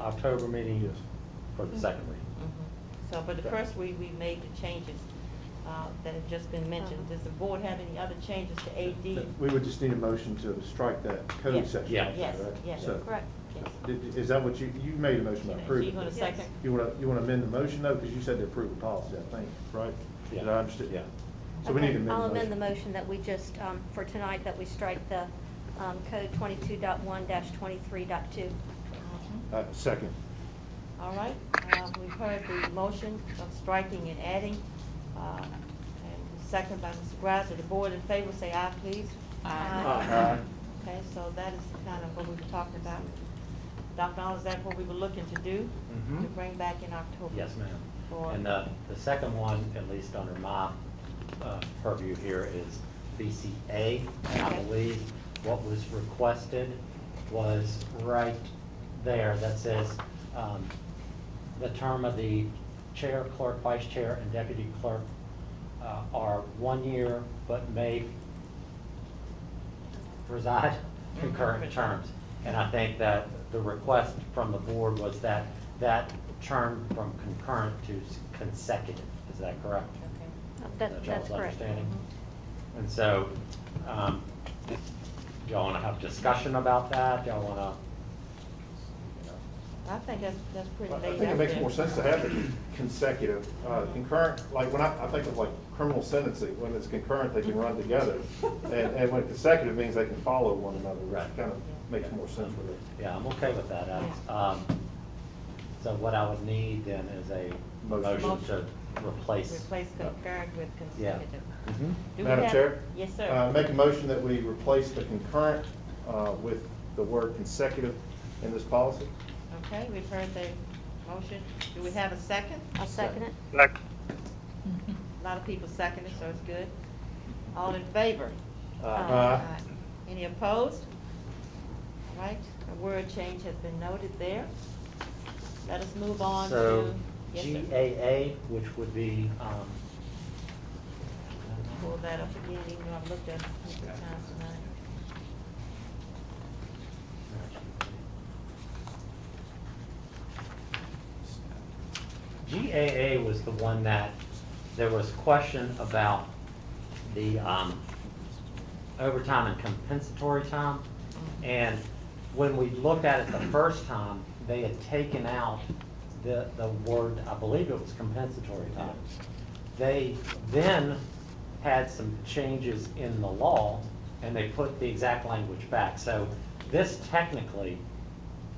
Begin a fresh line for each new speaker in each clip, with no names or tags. October meeting is for the second reading.
So, but the first we, we made the changes uh, that have just been mentioned. Does the board have any other changes to AD?
We would just need a motion to strike that code
Yes.
section.
Yeah.
Yes,
correct?
yes,
So-
correct, yes.
Did- Is that what you, you made a motion to
So you
approve?
gonna
it.
second?
You want to, you want to amend the motion though, because you said to approve the policy, I think, right?
Yeah.
Did I understand?
Yeah.
So we need
Okay,
to amend the motion.
I'll amend the motion that we just, um, for tonight, that we strike the um, code 22.1-23.2.
Mhm.
Uh, Second.
All right, uh, we've heard the motion of striking and adding, uh, and second by Mr. Grouser. The board in favor, say aye, please.
Aye.
Okay, so that is kind of what we were talking about. Dr. Arnold, is that what we were looking to do?
Mhm.
To bring back in October?
Yes, ma'am.
For-
And uh, the, the second one, at least under my uh, purview here, is BCA. And I
Okay.
believe what was requested was right there that says, um, the term of the chair, clerk, vice chair, and deputy clerk uh, are one year, but may preside concurrent terms. And I think that the request from the board was that, that term from concurrent to consecutive, is that correct?
Okay.
That- That's
y'all's
correct. Mm-hmm.
understanding? And so, um, y'all wanna have discussion about that, y'all wanna?
I think that's, that's pretty
I
laid out
think it makes
there.
more sense to have it consecutive, uh, concurrent, like, when I, I think of like criminal sentencing, when it's concurrent, they can run together. And, and when consecutive means they can follow one another,
Right.
which kind of makes more sense with it.
Yeah, I'm okay with that, Alex. Um, so what I would need then is a
Motion.
motion to replace.
Replace concurrent with
Yeah.
consecutive.
Mhm.
Do we
Madam
have-
Chair?
Yes, sir.
Uh, Make a motion that we replace the concurrent uh, with the word consecutive in this policy?
Okay, we've heard the motion. Do we have a second?
I'll second it.
A lot of people seconded, so it's good. All in favor?
Aye.
Uh,
Any opposed? All right, a word change has been noted there. Let us move on to.
So
Yes, sir.
GAA, which would be, um,
Pull that up again, even though I've looked at it multiple times tonight.
GAA was the one that, there was question about the um, overtime and compensatory time. And when we looked at it the first time, they had taken out the, the word, I believe it was compensatory time. They then had some changes in the law, and they put the exact language back. So this technically,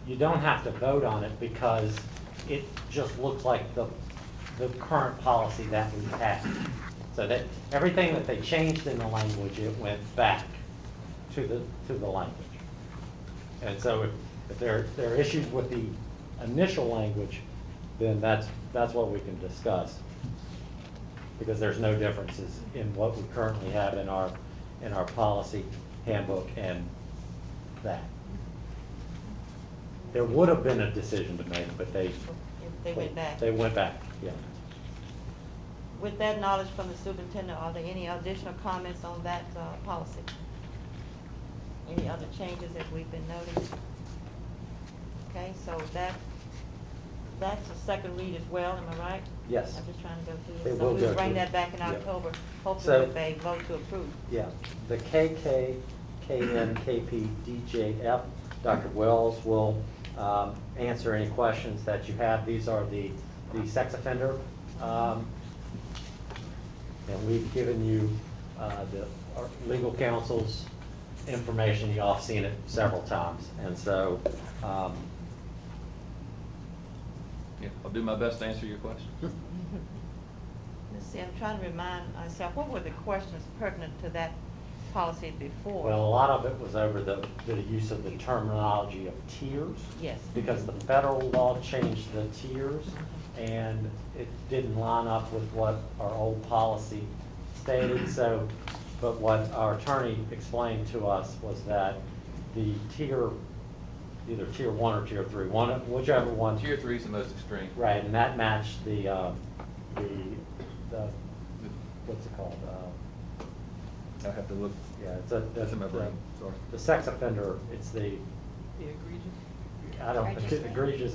you don't have to vote on it because it just looks like the, the current policy that we have. So that, everything that they changed in the language, it went back to the, to the language. And so if, if there, there are issues with the initial language, then that's, that's what we can discuss. Because there's no differences in what we currently have in our, in our policy handbook and that. There would have been a decision to make, but they.
If Oh, They went back.
They went back, yeah.
With that knowledge from the superintendent, are there any additional comments on that uh, policy? Any other changes that we've been noting? Okay, so that, that's a second read as well, am I right?
Yes.
I'm just trying to go
They
through this.
will
So
go
we'll bring
through.
that back in
Yeah.
October, hopefully
So-
with a vote to approve.
Yeah, the KK, KN, KP, DJF, Dr. Wells will um, answer any questions that you have. These are the, the sex offender. um, And we've given you uh, the our legal counsel's information, you all have seen it several times. And so, um,
Yeah, I'll do my best to answer your question.
Let's see, I'm trying to remind myself, what were the questions pertinent to that policy before?
well, a lot of it was over the, the use of the terminology of tiers.
Yes.
because the federal law changed the tiers, and it didn't line up with what our old policy stated, so, but what our attorney explained to us was that the tier, either tier one or tier three, one, whichever one.
Tier three is the most extreme.
Right, and that matched the, uh, the, the, what's it called, uh,
I have to look.
yeah, it's a.
That's in my brain, sorry.
The sex offender, it's the,
The egregious.
I don't, it's egregious,